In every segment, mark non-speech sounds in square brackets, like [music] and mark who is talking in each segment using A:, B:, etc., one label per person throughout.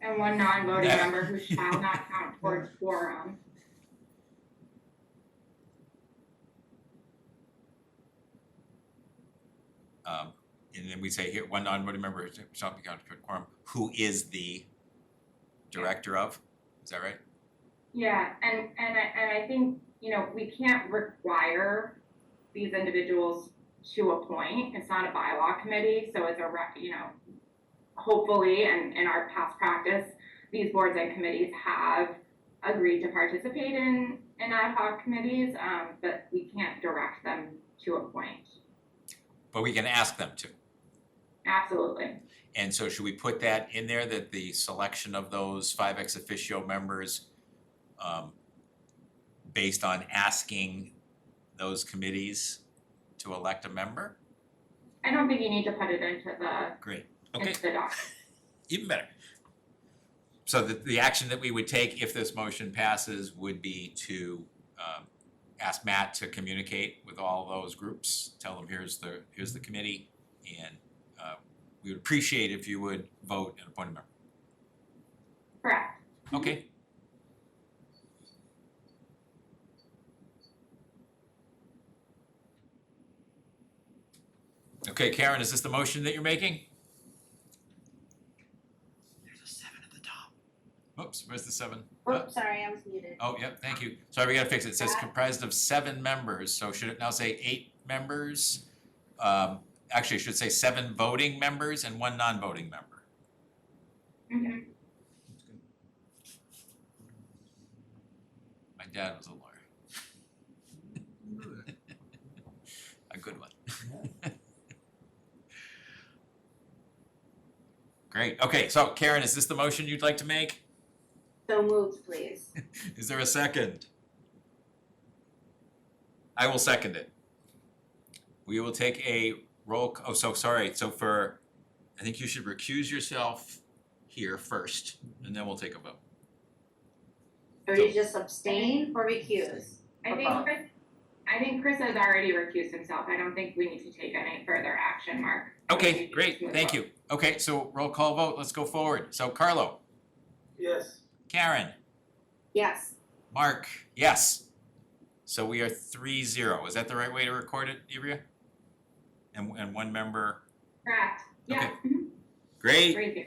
A: and one non-voting member who shall not count towards quorum.
B: Um, and then we say here, one non-voting member shall be counted toward quorum, who is the director of, is that right?
A: Yeah, and, and I, and I think, you know, we can't require these individuals to appoint, it's not a bylaw committee, so it's a rec, you know, hopefully, and in our past practice, these boards and committees have agreed to participate in, in ad hoc committees, um, but we can't direct them to appoint,
B: But we can ask them to.
A: absolutely.
B: And so should we put that in there, that the selection of those five ex officio members um based on asking those committees to elect a member?
A: I don't think you need to put it into the,
B: Great, okay,
A: into the doc.
B: even better. So the the action that we would take if this motion passes would be to um ask Matt to communicate with all those groups, tell them here's the here's the committee and uh we would appreciate if you would vote and appoint a member.
A: Correct.
B: Okay. Okay, Karen, is this the motion that you're making?
C: There's a seven at the top.
B: Oops, where's the seven? Uh,
D: Oops, sorry, I was muted.
B: Oh, yep, thank you. Sorry, we gotta fix it. It says comprised of seven members, so should it now say eight members? Um, actually, it should say seven voting members and one non-voting member.
A: hmm
B: My dad was a lawyer, [laughs] a good one. [laughs] Great, okay, so Karen, is this the motion you'd like to make?
D: So moved, please.
B: Is there a second? I will second it. We will take a roll, c- oh, so sorry, so for, I think you should recuse yourself here first, and then we'll take a vote.
D: Or you just abstain or recuse?
A: I think Chris, I think Chris has already recused himself. I don't think we need to take any further action, Mark.
B: Okay, great, thank you. Okay, so roll call vote, let's go forward. So Carlo,
C: Yes.
B: Karen,
D: Yes,
B: Mark, yes. So we are three zero, is that the right way to record it, Ibria? And, and one member,
A: Correct. Yeah. Mhm.
B: great,
A: Great. view.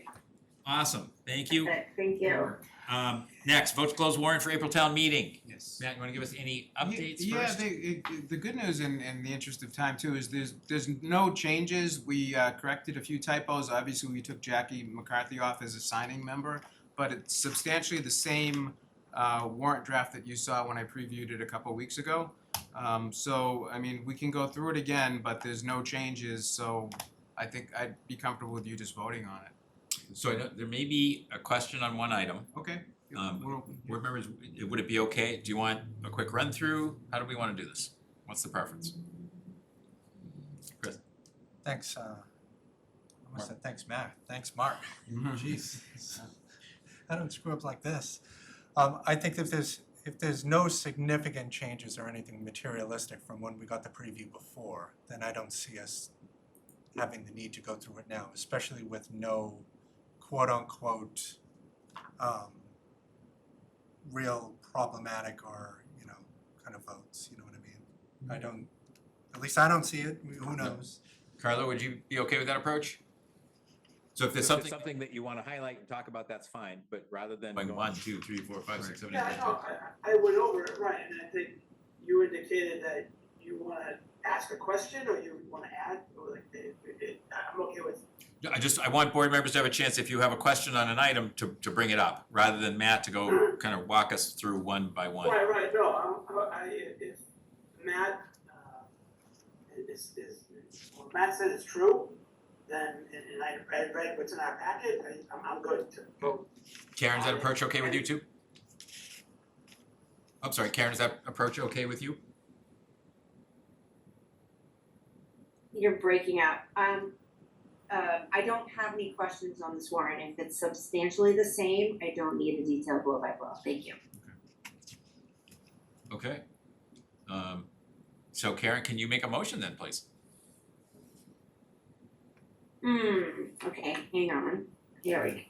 B: awesome, thank you.
D: perfect, thank you.
B: Um, next, vote to close warrant for April town meeting.
E: Yes.
B: Matt, you wanna give us any
E: Ye-
B: updates first?
E: Yeah, the, it- the good news in, in the interest of time too is there's, there's no changes. We uh, corrected a few typos. Obviously, we took Jackie McCarthy off as a signing member, but it's substantially the same uh, warrant draft that you saw when I previewed it a couple weeks ago. Um, so, I mean, we can go through it again, but there's no changes, so I think I'd be comfortable with you just voting on it.
B: So I know, there may be a question on one item.
E: Okay.
B: Um,
E: We'll-
B: Board members, would it be okay? Do you want a quick run through? How do we wanna do this? What's the preference?
F: Thanks, uh, I almost said thanks, Matt, thanks, Mark, jeez. [laughs] I don't screw up like this. Um, I think if there's, if there's no significant changes or anything materialistic from when we got the preview before, then I don't see us having the need to go through it now, especially with no quote-unquote, um, real problematic or, you know, kind of votes, you know what I mean? I don't, at least I don't see it, who knows?
B: Carlo, would you be okay with that approach? So if there's
G: So if
B: something,
G: it's Something that you want to highlight and talk about, that's fine, but rather than
B: like
G: going.
B: one, two, three, four, five, six, seven, eight,
C: Yeah,
B: nine,
C: I
B: ten.
C: know, I, I I went over it, right, and I think you indicated that you wanna ask a question or you wanna add, or like, it, it- it, I'm okay with.
B: No, I just, I want board members to have a chance, if you have a question on an item, to, to bring it up, rather than Matt to go kind of walk us through one by one.
C: Right, right, no, I'm, I, I- if Matt, uh, is, is, what Matt said is true, then, and, and I read, read what's in our packet, I, I'm, I'm good to vote.
B: Karen, is that approach okay with you too? I'm sorry, Karen, is that approach okay with you?
D: You're breaking up. Um, uh, I don't have any questions on this warrant. If it's substantially the same, I don't need a detailed blow-by-blow. Thank you.
B: Okay. Um, so Karen, can you make a motion then, please?
D: Hmm, okay, hang on. Here we